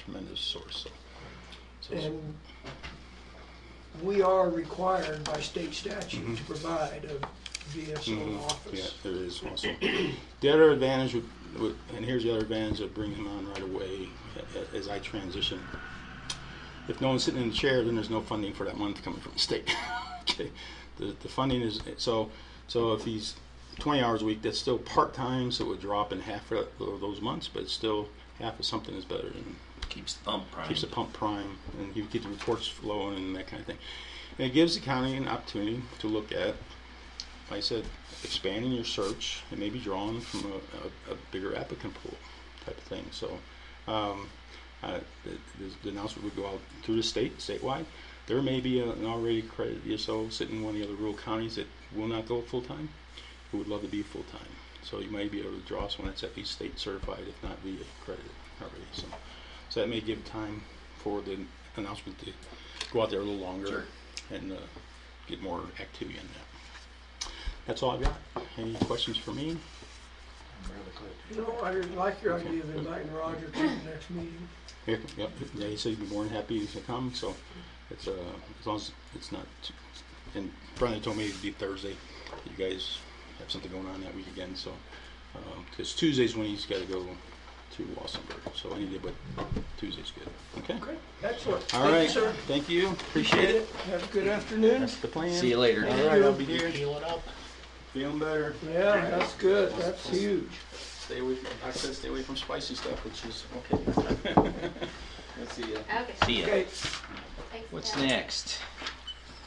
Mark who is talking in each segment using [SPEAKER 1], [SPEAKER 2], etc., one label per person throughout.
[SPEAKER 1] tremendous source, so. so it's-
[SPEAKER 2] And we are required by state statute to provide a VSO
[SPEAKER 1] Mm-hmm. Yeah,
[SPEAKER 2] office.
[SPEAKER 1] there is also. The other advantage, would- would- and here's the other advantage of bringing him on right away a- a- as I transition. If no one's sitting in the chair, then there's no funding for that month coming from the state. Okay, The, the funding is, so, so if he's twenty hours a week, that's still part-time, so it would drop in half of those months, but it's still half of something is better than
[SPEAKER 3] Keeps the thumb primed.
[SPEAKER 1] keeps the pump prime, and you get the reports flowing and that kind of thing. And it gives the county an opportunity to look at, like I said, expanding your search and maybe drawing from a, a, a bigger applicant pool type of thing. So, um, uh, the, the- the announcement would go out through the state, statewide. There may be a- an already accredited ESO sitting in one of the other rural counties that will not go full-time, who would love to be full-time. So you might be able to draw someone that's at least state certified, if not be accredited already, so. So that may give time for the announcement to go out there a little
[SPEAKER 3] Sure.
[SPEAKER 1] longer and uh, get more activity in that. That's all I've got. Any questions for me?
[SPEAKER 2] You know, I like your idea of inviting Roger to the next meeting.
[SPEAKER 1] Here, yep, yeah, he said he'd be more than happy to come, so it's, uh, as long as it's not, too- and Brendan told me it'd be Thursday. You guys have something going on that week again, so, um 'cause Tuesday's when he's gotta go to Wassenberg, so any day but Tuesday's good, okay?
[SPEAKER 2] Okay, excellent.
[SPEAKER 1] All right,
[SPEAKER 2] Thank you, sir.
[SPEAKER 1] thank you, appreciate it.
[SPEAKER 2] Have a good afternoon.
[SPEAKER 1] That's the plan.
[SPEAKER 3] See you later.
[SPEAKER 1] All right, I'll be
[SPEAKER 4] You
[SPEAKER 1] here.
[SPEAKER 4] Heal it up.
[SPEAKER 1] Feeling better.
[SPEAKER 2] Yeah, that's good. That's huge.
[SPEAKER 1] Stay away from, I said stay away from spicy stuff, which is, okay. Let's see, uh,
[SPEAKER 5] Okay,
[SPEAKER 3] See ya.
[SPEAKER 2] Okay,
[SPEAKER 5] thanks.
[SPEAKER 3] What's
[SPEAKER 5] Dad.
[SPEAKER 3] next?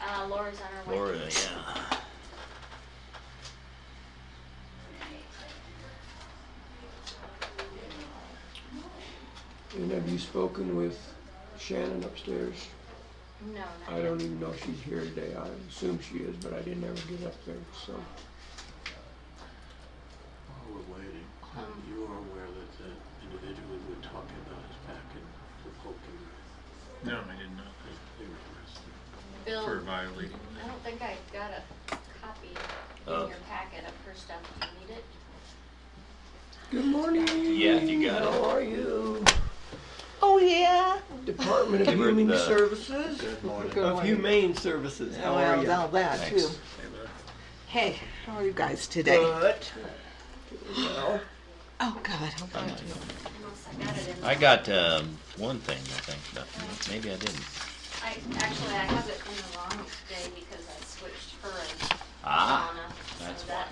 [SPEAKER 5] Uh, Laura's on her way.
[SPEAKER 3] Laura, yeah.
[SPEAKER 2] and have you spoken with Shannon upstairs?
[SPEAKER 5] No,
[SPEAKER 2] I
[SPEAKER 3] Oh.
[SPEAKER 5] not
[SPEAKER 2] don't even know if she's here today. I assume she is, but I didn't ever get up there, so.
[SPEAKER 6] While we're waiting,
[SPEAKER 5] Um.
[SPEAKER 6] you are aware that the individual we were talking about is back in the Polk area.
[SPEAKER 7] No, I did not,
[SPEAKER 6] They were arrested.
[SPEAKER 5] Bill,
[SPEAKER 7] for violating.
[SPEAKER 5] I don't think I got a copy in
[SPEAKER 3] Of-
[SPEAKER 5] your packet of her stuff. Do you need it?
[SPEAKER 2] Good morning.
[SPEAKER 3] Yeah, if you got it.
[SPEAKER 2] How are you? Oh, yeah. Department of
[SPEAKER 3] Give her
[SPEAKER 2] Human
[SPEAKER 3] the-
[SPEAKER 2] Services. Of Humane Services. How are
[SPEAKER 8] Well, now
[SPEAKER 2] you?
[SPEAKER 8] that too.
[SPEAKER 3] Thanks.
[SPEAKER 8] Hey, how are you guys today?
[SPEAKER 2] Good. Well,
[SPEAKER 8] Oh, good. I'm glad to know.
[SPEAKER 5] Unless I got it in.
[SPEAKER 3] I got um, one thing, I think, but maybe I didn't.
[SPEAKER 5] I, actually, I have it in the wrong day because I switched her and
[SPEAKER 3] Ah,
[SPEAKER 5] Donna. so
[SPEAKER 3] that's
[SPEAKER 5] that-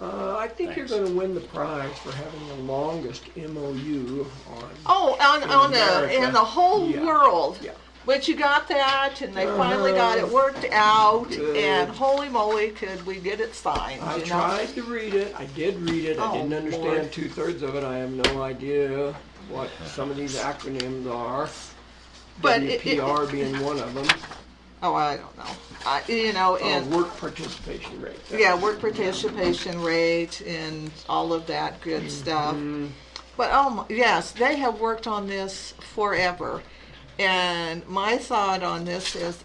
[SPEAKER 2] Uh, I think you're
[SPEAKER 3] Thanks.
[SPEAKER 2] gonna win the prize for having the longest MOU on.
[SPEAKER 8] Oh, on, on the,
[SPEAKER 2] America.
[SPEAKER 8] in the whole
[SPEAKER 2] Yeah.
[SPEAKER 8] world.
[SPEAKER 2] Yeah. Uh-huh.
[SPEAKER 8] But you got that, and they finally got it worked out, and holy moly, could we get it signed,
[SPEAKER 2] I
[SPEAKER 8] you know?
[SPEAKER 2] tried to read it, I did read it, I
[SPEAKER 8] Oh,
[SPEAKER 2] didn't
[SPEAKER 8] Lord.
[SPEAKER 2] understand two-thirds of it, I have no idea what some of these acronyms are.
[SPEAKER 8] But it- it-
[SPEAKER 2] WPR being one of them,
[SPEAKER 8] Oh, I don't know. I, you know,
[SPEAKER 2] uh,
[SPEAKER 8] and,
[SPEAKER 2] work participation rate.
[SPEAKER 8] yeah, work participation rate and all of that good stuff. But oh, my- yes, they have worked on this forever. And my thought on this is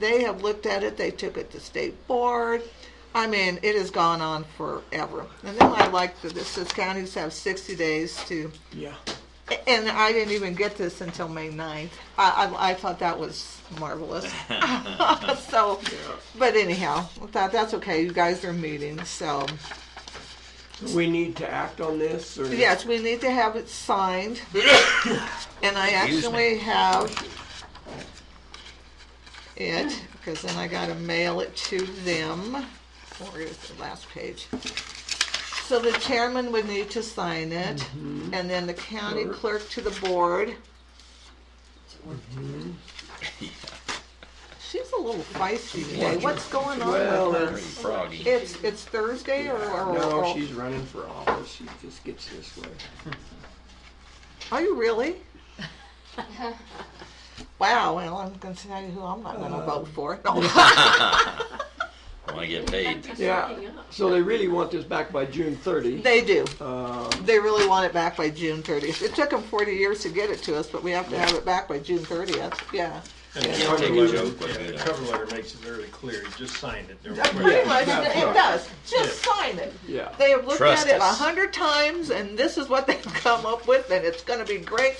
[SPEAKER 8] they have looked at it, they took it to state board. I mean, it has gone on forever. And then I like that this says counties have 60 days to,
[SPEAKER 2] Yeah,
[SPEAKER 8] and I didn't even get this until May 9th. I, I, I thought that was marvelous. so, but anyhow, that, that's okay. You guys are meeting, so.
[SPEAKER 2] So we need to act on this, or?
[SPEAKER 8] Yes, we need to have it signed. And I
[SPEAKER 3] Excuse me.
[SPEAKER 8] actually have it, because then I gotta mail it to them. Where is the last page? So the chairman would need to sign it, and then the county clerk to the board. She's a little feisty today. What's going on
[SPEAKER 2] Well,
[SPEAKER 8] with her?
[SPEAKER 3] pretty froggy.
[SPEAKER 8] It's, it's Thursday or, or-
[SPEAKER 2] No,
[SPEAKER 8] or,
[SPEAKER 2] Oh, she's running for office, she just gets this way.
[SPEAKER 8] are you really? Wow, well, I'm gonna tell you who I'm not gonna vote for. No.
[SPEAKER 3] Want to get paid?
[SPEAKER 2] Yeah, so they really want this back by June thirty.
[SPEAKER 8] They do.
[SPEAKER 2] Um,
[SPEAKER 8] They really want it back by June thirtieth. It took them forty years to get it to us, but we have to have it back by June thirtieth, yeah.
[SPEAKER 6] And the
[SPEAKER 3] Yeah,
[SPEAKER 6] cover
[SPEAKER 3] take it
[SPEAKER 6] letter,
[SPEAKER 3] joke with
[SPEAKER 6] yeah,
[SPEAKER 3] it.
[SPEAKER 6] the cover letter makes it very clear, you just signed it.
[SPEAKER 8] Uh, Pretty much,
[SPEAKER 9] Yeah.
[SPEAKER 8] it does. Just sign it.
[SPEAKER 10] Yeah.
[SPEAKER 8] They have looked
[SPEAKER 3] Trust
[SPEAKER 8] at it a
[SPEAKER 3] us.
[SPEAKER 8] hundred times, and this is what they've come up with, and it's gonna be great